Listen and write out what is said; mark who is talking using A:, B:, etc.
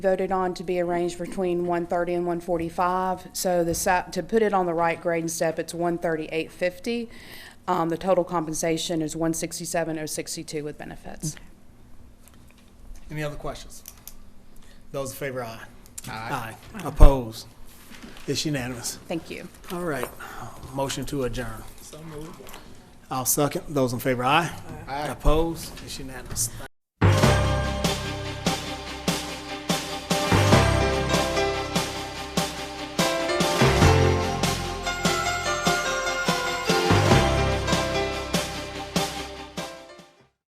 A: voted on to be arranged between 130 and 145. So the, sa- to put it on the right grade and step, it's 138.50. Um, The total compensation is 167.062 with benefits.
B: Any other questions? Those in favor, aye. Aye. Opposed? It's unanimous.
A: Thank you.
B: All right. Motion to adjourn. So moved. I'll second. Those in favor, aye. Aye. Opposed? It's unanimous.